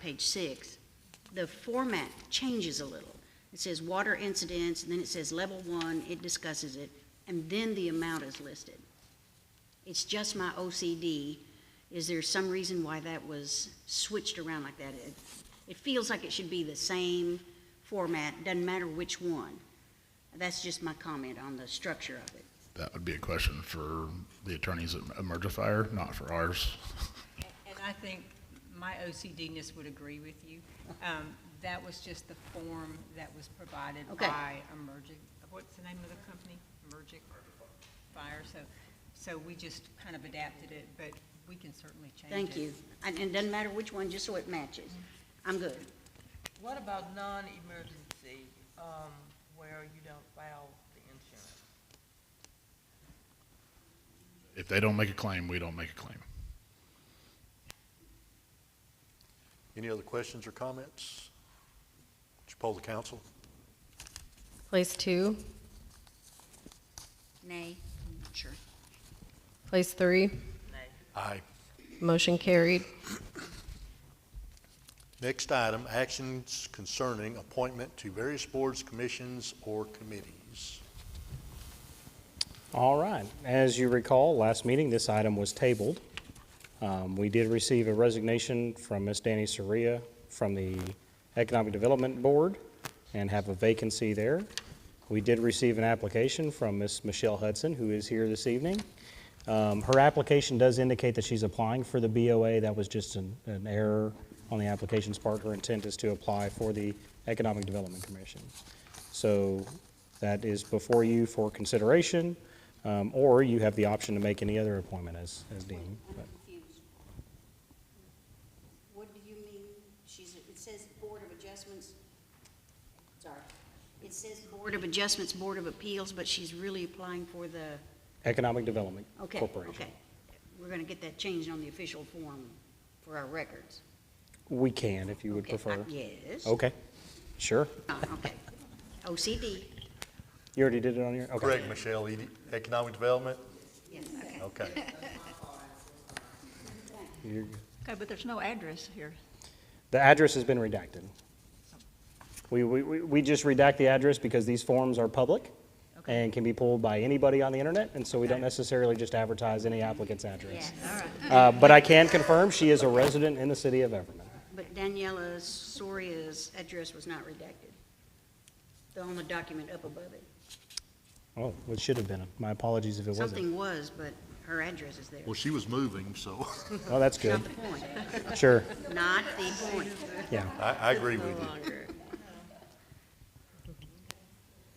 page six, the format changes a little. It says water incidents, and then it says level one, it discusses it, and then the amount is listed. It's just my OCD. Is there some reason why that was switched around like that? It, it feels like it should be the same format, doesn't matter which one. That's just my comment on the structure of it. That would be a question for the attorneys at Emergifier, not for ours. And I think my OCD-ness would agree with you. Um, That was just the form that was provided Okay. by Emergic, what's the name of the company? Emergic Fire, so, so we just kind of adapted it, but we can certainly change it. Thank you. And and it doesn't matter which one, just so it matches. I'm good. What about non-emergency, um, where you don't file the insurance? If they don't make a claim, we don't make a claim. Any other questions or comments? Would you poll the council? Place two, Nay? Sure. place three, Nay. Aye. motion carried. Next item, actions concerning appointment to various boards, commissions, or committees. All right. As you recall, last meeting, this item was tabled. Um, We did receive a resignation from Ms. Danny Soria from the Economic Development Board and have a vacancy there. We did receive an application from Ms. Michelle Hudson, who is here this evening. Um, Her application does indicate that she's applying for the BOA. That was just an an error on the application's part. Her intent is to apply for the Economic Development Commission. So that is before you for consideration, um, or you have the option to make any other appointment as, as deemed. but- confused. What do you mean, she's, it says Board of Adjustments, sorry, it says Board of Adjustments, Board of Appeals, but she's really applying for the, Economic Development okay, Corporation. okay. We're gonna get that changed on the official form for our records. We can, if you would Okay, I- prefer. Oh. Yes. Okay, sure. Oh, Okay. OCD, You already did it on your, okay. Correct, Michelle, E- economic development? yes, okay. Okay. You're- Okay, but there's no address here. The address has been redacted. We, we, we we just redact the address because these forms are public Okay. and can be pulled by anybody on the internet, and so we don't necessarily just advertise any applicant's address. All right. Uh, But I can confirm, she is a resident in the city of Everman. But Daniela Soria's address was not redacted. The only document up above it. Oh, it should have been. My apologies if it wasn't. Something was, but her address is there. Well, she was moving, so Oh, that's good. Not the point, Sure, not the point. yeah. I, I agree with you.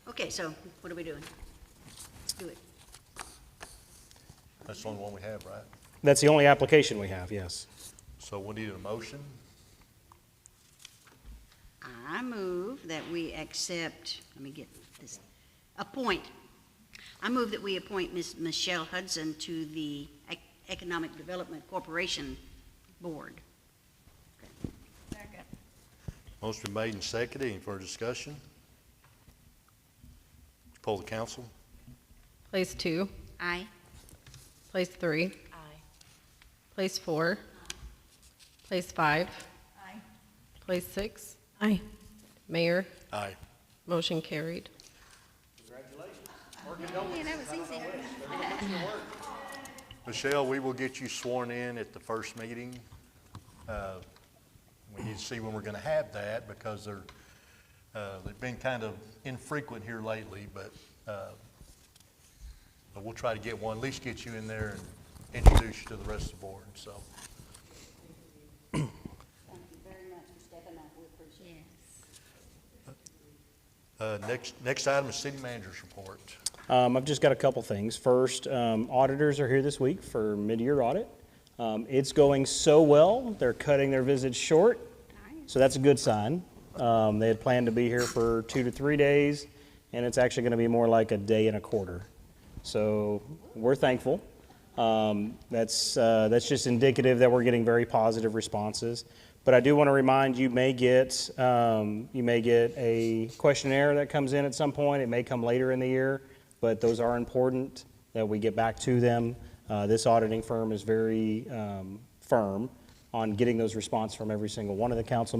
Okay, so what are we doing? Do it. That's the only one we have, right? That's the only application we have, yes. So we need a motion. I move that we accept, let me get this, appoint. I move that we appoint Ms. Michelle Hudson to the Ec- Economic Development Corporation Board. Motion been made and seconded. Any further discussion? Poll the council. Place two, Aye. place three. Aye. Place four. Place five. Aye. Place six. Aye. Mayor, Aye. motion carried. Michelle, we will get you sworn in at the first meeting. Uh, We need to see when we're going to have that because they're, uh, they've been kind of infrequent here lately, but uh, but we'll try to get one, at least get you in there and introduce you to the rest of the board, so. Thank you very much for stepping up, we appreciate it. uh, Next, next item is city manager's report. Um, I've just got a couple things. First, um, auditors are here this week for mid-year audit. Um, it's going so well, they're cutting their visits short, so that's a good sign. Um, they had planned to be here for two to three days, and it's actually going to be more like a day and a quarter. So we're thankful. Um, that's uh, that's just indicative that we're getting very positive responses. But I do want to remind you may get um, you may get a questionnaire that comes in at some point. It may come later in the year, but those are important that we get back to them. Uh, this auditing firm is very um, firm on getting those responses from every single one of the council members.